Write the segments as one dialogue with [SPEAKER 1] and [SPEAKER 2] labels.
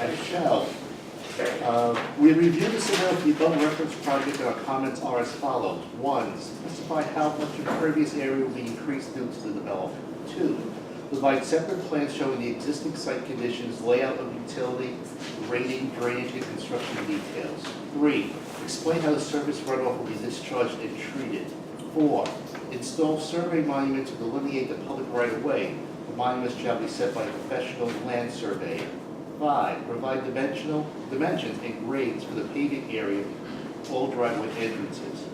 [SPEAKER 1] I shall. Uh, We reviewed the Civil the above reference project, and our comments are as follows. One, specify how much impervious area will be increased due to the development. Two, provide separate plans showing the existing site conditions, layout of utility, rating, drainage, and construction details. Three, explain how the surface runoff will be discharged and treated. Four, install survey monuments to delineate the public right-of-way. The monuments shall be set by a professional land surveyor. Five, provide dimensional, dimensions and grades for the paving area, of all driveway entrances.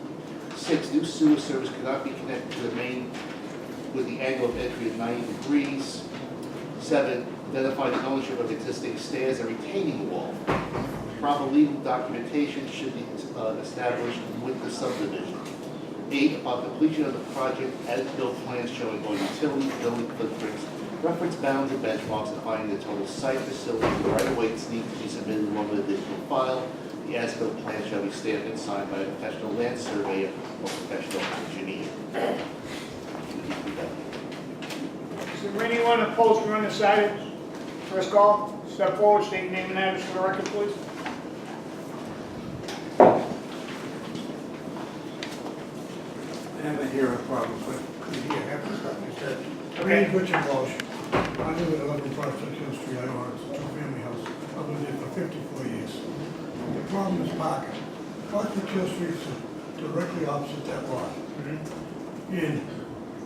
[SPEAKER 1] Six, new sewer service cannot be connected to the main with the angle of entry of ninety degrees. Seven, identify the ownership of existing stairs and retaining wall. Proper legal documentation should be uh, established with the subdivision. Eight, upon completion of the project, as-built plans showing all utility, building footprints, reference bounds and benchmarks defining the total site facility, the right-of-way needs to be submitted along with additional file. The as-built plan shall be stamped and signed by a professional land surveyor or professional engineer.
[SPEAKER 2] Is there anyone opposed or undecided? First call, step forward, state your name and address for the record, please.
[SPEAKER 3] I have a hearing problem, but could hear half the stuff you said.
[SPEAKER 2] Okay.
[SPEAKER 3] Reed Richard Walsh. I live at eleven Prospect Hill Street, I own a two-family house. I've lived there for fifty-four years. The problem is parking. Prospect Hill Street is directly opposite that lot. And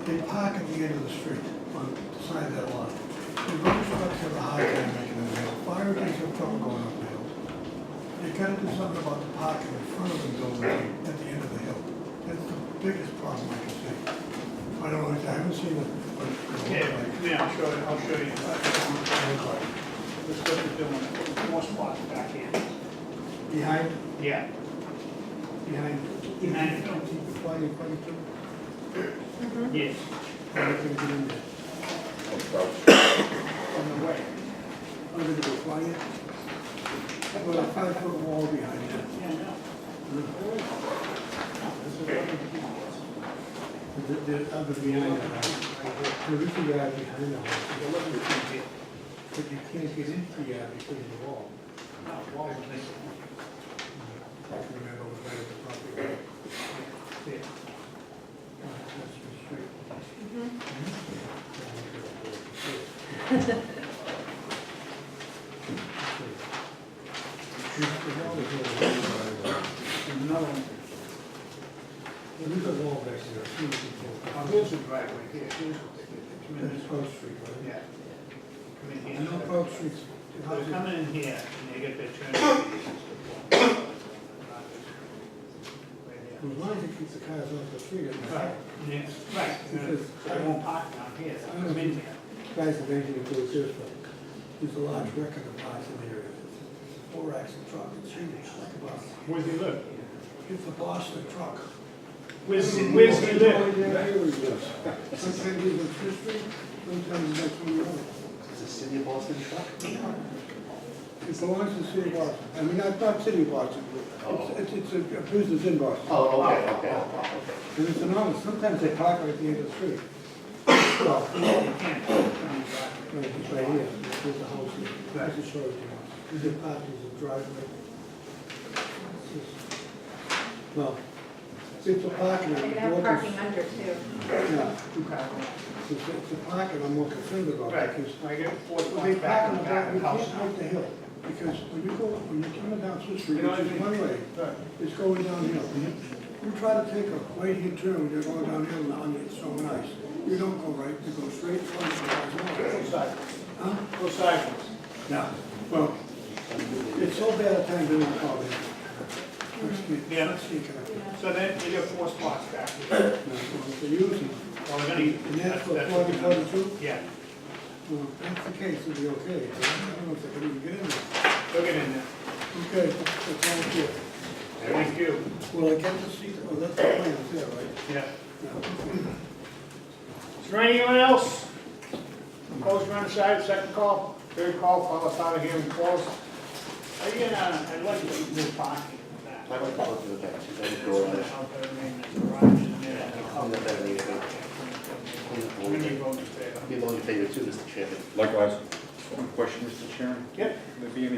[SPEAKER 3] they park at the end of the street on the side of that lot. The road trucks have a hard time making it hill. Fire trucks have trouble going up the hill. They gotta do something about the parking in front of the building at the end of the hill. That's the biggest problem I can see. I don't know, I haven't seen it, but
[SPEAKER 2] Yeah,
[SPEAKER 3] it looks like.
[SPEAKER 2] yeah, I'll show you, I'll show you. This is what they're doing, more spots back here.
[SPEAKER 3] Behind,
[SPEAKER 2] Yeah.
[SPEAKER 3] behind.
[SPEAKER 2] Behind.
[SPEAKER 3] Why you, why you put,
[SPEAKER 2] Yes.
[SPEAKER 3] why you put it in there?
[SPEAKER 2] On the way.
[SPEAKER 3] Under the fire? Well, a five-foot wall behind it.
[SPEAKER 2] Yeah, no.
[SPEAKER 3] The, the other behind the house. There is a yard behind the house,
[SPEAKER 2] You're looking at it here.
[SPEAKER 3] but you can't get into the yard because of the wall.
[SPEAKER 2] No, wall is missing.
[SPEAKER 3] I can remember when I was probably,
[SPEAKER 2] Yeah.
[SPEAKER 3] uh, that's the street.
[SPEAKER 2] Another one.
[SPEAKER 3] There is a wall back there, I see
[SPEAKER 2] Oh,
[SPEAKER 3] it
[SPEAKER 2] here's the driveway here, here's, come in
[SPEAKER 3] That's
[SPEAKER 2] this way.
[SPEAKER 3] Grove Street, right?
[SPEAKER 2] Yeah. Come in
[SPEAKER 3] I
[SPEAKER 2] here.
[SPEAKER 3] know Grove Street's,
[SPEAKER 2] Well,
[SPEAKER 3] how's it-
[SPEAKER 2] come in here, and they get their turn.
[SPEAKER 3] as long as it keeps the cars off the street, it's
[SPEAKER 2] Right,
[SPEAKER 3] fine.
[SPEAKER 2] yeah, right, I won't park down here, so come in here.
[SPEAKER 3] Guys have anything to do with this, but there's a large record of parts in the area. It's a Four axle truck, it's huge, like a bus.
[SPEAKER 2] Where does he live?
[SPEAKER 3] It's a Boston truck.
[SPEAKER 2] Where's, where's he live?
[SPEAKER 3] Sometimes he's on Fifth Street, sometimes he's on King Road.
[SPEAKER 1] Is the city of Boston truck?
[SPEAKER 3] It belongs to the city of Boston. I mean, not, not city of Boston, but it's, it's it's a business in Boston.
[SPEAKER 1] Oh, okay, okay.
[SPEAKER 3] And it's enormous. Sometimes they park right at the end of the street. Well, No, it's right here, there's a house here, that's a short one, there's a path, there's a driveway. No, it's a parking,
[SPEAKER 4] They
[SPEAKER 3] I'm
[SPEAKER 4] could have
[SPEAKER 3] more
[SPEAKER 4] parking
[SPEAKER 3] concerned,
[SPEAKER 4] under too.
[SPEAKER 3] yeah,
[SPEAKER 2] Two car garage.
[SPEAKER 3] it's, it's a parking I'm more concerned about,
[SPEAKER 2] Right,
[SPEAKER 3] because
[SPEAKER 2] I get four
[SPEAKER 3] when they
[SPEAKER 2] spots back
[SPEAKER 3] park
[SPEAKER 2] in
[SPEAKER 3] in
[SPEAKER 2] the
[SPEAKER 3] the
[SPEAKER 2] back of the house
[SPEAKER 3] back, we can't
[SPEAKER 2] now.
[SPEAKER 3] make the hill, because when you go, when you're coming down Swiss
[SPEAKER 2] You
[SPEAKER 3] Street,
[SPEAKER 2] know,
[SPEAKER 3] which
[SPEAKER 2] I
[SPEAKER 3] is
[SPEAKER 2] think-
[SPEAKER 3] one way,
[SPEAKER 2] Right.
[SPEAKER 3] it's going downhill. You try to take a right-hand turn when you're going downhill on the stone ice, you don't go right, you go straight front, you
[SPEAKER 2] Go
[SPEAKER 3] go
[SPEAKER 2] side-
[SPEAKER 3] Huh?
[SPEAKER 2] go sideways.
[SPEAKER 3] Yeah, well, it's so bad a time to not call it.
[SPEAKER 2] Yeah.
[SPEAKER 3] Let's see, can I-
[SPEAKER 2] So then you get four spots back here.
[SPEAKER 3] no, well, They use it.
[SPEAKER 2] Well, we're gonna-
[SPEAKER 3] And that's for
[SPEAKER 2] that's-
[SPEAKER 3] forty, forty-two?
[SPEAKER 2] Yeah,
[SPEAKER 3] Well, if that's the case, it'll be okay. but I don't know if they can even get in there.
[SPEAKER 2] look at it now.
[SPEAKER 3] Okay, that's all good.
[SPEAKER 2] Thank you.
[SPEAKER 3] Well, I get to see, oh, that's the plan, there, right?
[SPEAKER 2] Yeah.
[SPEAKER 3] Yeah.
[SPEAKER 2] Is there anyone else? Opposed, run aside, second call, third call, follow us out of here and close. Are you gonna, I'd like to leave this parking back.
[SPEAKER 1] I like to look at the back, she's got a door on it.
[SPEAKER 2] Out there, maybe in the garage, and then I'll
[SPEAKER 1] I'm
[SPEAKER 2] come
[SPEAKER 1] not that neat, but-
[SPEAKER 2] back. When you go to bed.
[SPEAKER 1] Be all in favor too, Mr. Chairman.
[SPEAKER 5] Likewise, one question, Mr. Chairman.
[SPEAKER 2] Yep.
[SPEAKER 5] Would there be any